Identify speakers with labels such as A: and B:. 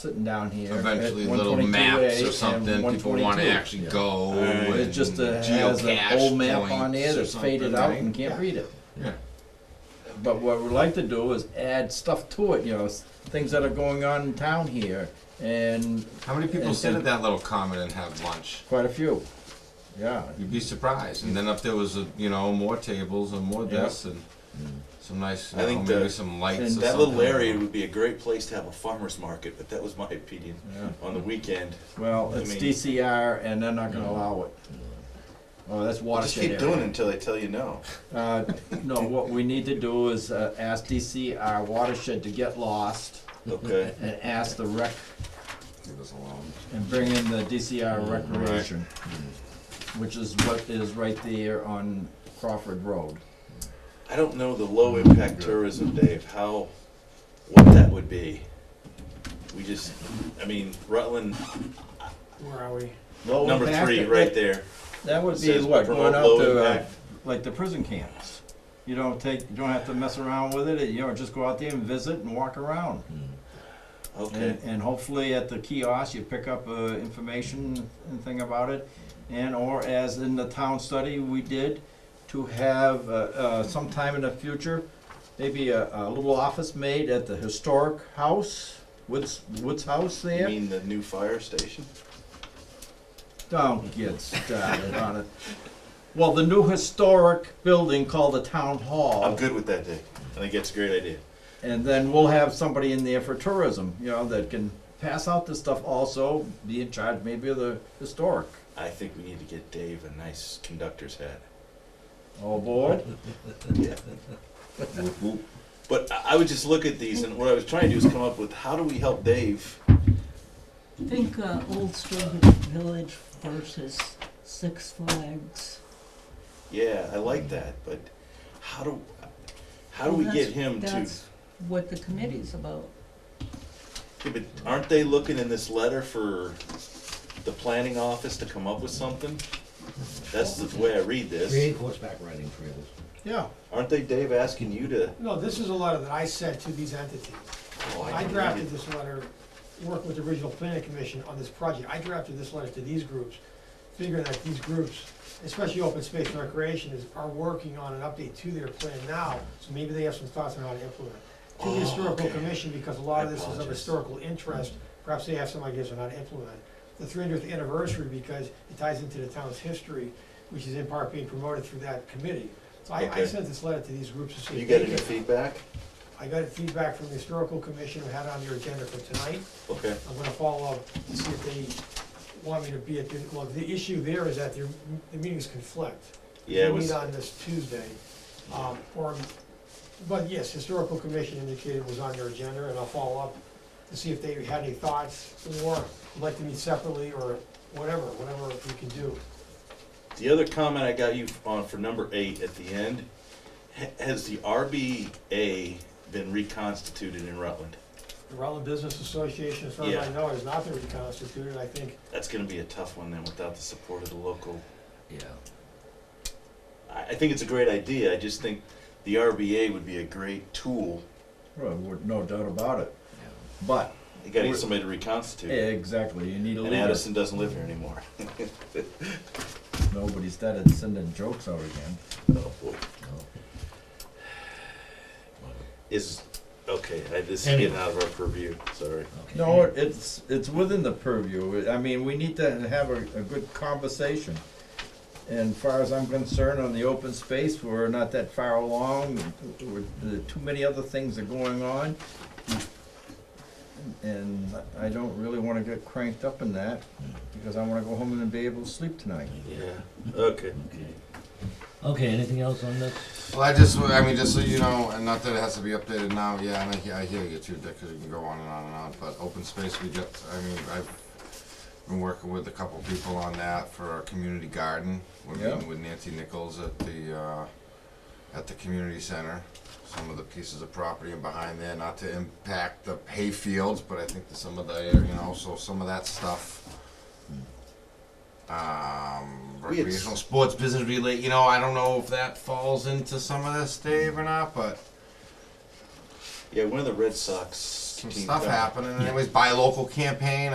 A: sitting down here. at
B: Eventually, little
A: 122A
B: maps or
A: and
B: something, people want to
A: 122.
B: actually go.
C: Alright.
B: and
A: It just uh, has an
B: geocache
A: old map on
B: points
A: there
B: or
A: that's faded
B: something,
A: out
B: right?
A: and can't read it.
B: Yeah.
A: But what we like to do is add stuff to it, you know, s- things that are going on in town here, and
B: How many people
A: And-
B: sit
A: and-
B: at that little common and have lunch?
A: quite a few. Yeah,
B: You'd be surprised. And then if there was, a, you know, more tables and more
A: Yeah.
B: this and some nice, you
C: I
B: know,
C: think
B: maybe
C: the-
B: some lights or
A: and
B: something.
C: That little area would be a great place to have a farmer's market, but that was my opinion.
A: Yeah.
C: On the weekend,
A: well,
C: I
A: it's
C: mean- Mm.
A: DCR, and they're not gonna allow it. Oh, that's
C: just
A: watershed
C: keep
A: area.
C: doing it until they tell you no.
A: Uh, no, what we need to do is uh, ask DCR watershed to get lost,
C: Okay.
A: and ask the rec
B: Leave us alone.
A: and bring in the DCR recreation, which is what is right there on Crawford Road.
C: I don't know the low impact tourism, Dave, how, what that would be. We just, I mean, Rutland,
D: Where are we?
A: Low
C: number
A: impact,
C: three,
A: that-
C: right there.
A: That would be
C: Says
A: what,
C: promote
A: going out
C: low
A: to, uh,
C: impact.
A: like the prison camps. You don't take, you don't have to mess around with it, you know, just go out there and visit and walk around.
C: Okay,
A: And, and hopefully at the kiosk, you pick up, uh, information and thing about it. And, or as in the town study we did, to have, uh, uh, sometime in the future, maybe a, a little office made at the historic house, Woods, Woods House
C: you
A: there.
C: mean the new fire station?
A: Don't get started on it. Well, the new historic building called the town hall.
C: I'm good with that, Dave. I think it's a great idea.
A: And then we'll have somebody in there for tourism, you know, that can pass out this stuff also, be in charge maybe of the historic.
C: I think we need to get Dave a nice conductor's hat.
A: All aboard?
C: Yeah. But I I would just look at these, and what I was trying to do is come up with how do we help Dave?
E: Think uh, Old Strongwood Village versus Six Flags.
C: Yeah, I like that, but how do how do we
E: Well,
C: get
E: that's-
C: him to?
E: That's what the committee's about.
C: Yeah, but aren't they looking in this letter for the planning office to come up with something? That's the way I read this.
F: Create horseback riding trails.
A: Yeah.
C: Aren't they, Dave, asking you to?
D: No, this is a letter that I sent to these entities.
C: oh,
D: I
C: can read
D: drafted
C: it.
D: this letter, working with the original planning commission on this project, I drafted this letter to these groups, figuring that these groups, especially open space and recreation, is, are working on an update to their plan now, so maybe they have some thoughts on how to implement it. To
C: Oh,
D: the historical
C: okay.
D: commission, because a lot
C: I
D: of this is of
C: apologize.
D: historical interest, perhaps they have some ideas on how to implement it. The three hundredth anniversary, because it ties into the town's history, which is in part being promoted through that committee. So I, I
C: Okay.
D: sent this letter to these groups to see
C: You
D: if
C: got
D: they
C: any
D: could
C: feedback?
D: I got feedback from the historical commission who had it on their agenda for tonight.
C: Okay.
D: I'm gonna follow up to see if they want me to be at the, well, the issue there is that their, the meetings conflict.
C: Yeah, it
D: They
C: was.
D: meet on this Tuesday, um, or, but yes, historical commission indicated it was on their agenda, and I'll follow up to see if they had any thoughts, or would like to meet separately, or whatever, whatever we can do.
C: The other comment I got you on for number eight at the end, ha- has the RBA been reconstituted in Rutland?
D: The Rutland Business Association, as far as
C: Yeah.
D: I know, has not been reconstituted, I think
C: That's gonna be a tough one then without the support of the local.
F: Yeah.
C: I, I think it's a great idea, I just think the RBA would be a great tool.
A: Well, we're- no doubt about it. But,
C: You gotta get somebody to reconstitute. it.
A: exactly, you need a
C: And
A: leader.
C: Addison doesn't live here anymore.
A: Nobody started sending jokes out again.
C: Oh, boy. Is, okay, I, this is getting out of our purview, sorry.
F: Okay.
A: No, it's, it's within the purview. I mean, we need to have a, a good conversation. And far as I'm concerned, on the open space, we're not that far along. We're- there are Too many other things are going on. And I don't really wanna get cranked up in that, because I wanna go home and be able to sleep tonight.
C: Yeah, okay.
F: Okay. Okay, anything else on this?
B: Well, I just, I mean, just so you know, and not that it has to be updated now, yeah, and I, hear- I hear you too, Dick, 'cause you can go on and on and on, but open space, we get, I mean, I've been working with a couple people on that for our community garden, we're
A: Yeah.
B: meeting with Nancy Nichols at the, uh, at the community center, some of the pieces of property and behind there, not to impact the hay fields, but I think that some of the, you know, so some of that stuff. Um,
C: We had s-
B: recreational sports business relate, you know, I don't know if that falls into some of this, Dave, or not, but
C: Yeah, one of the Red Sox.
B: Some
C: teams
B: stuff
C: got-
B: happening, anyways, buy local campaign,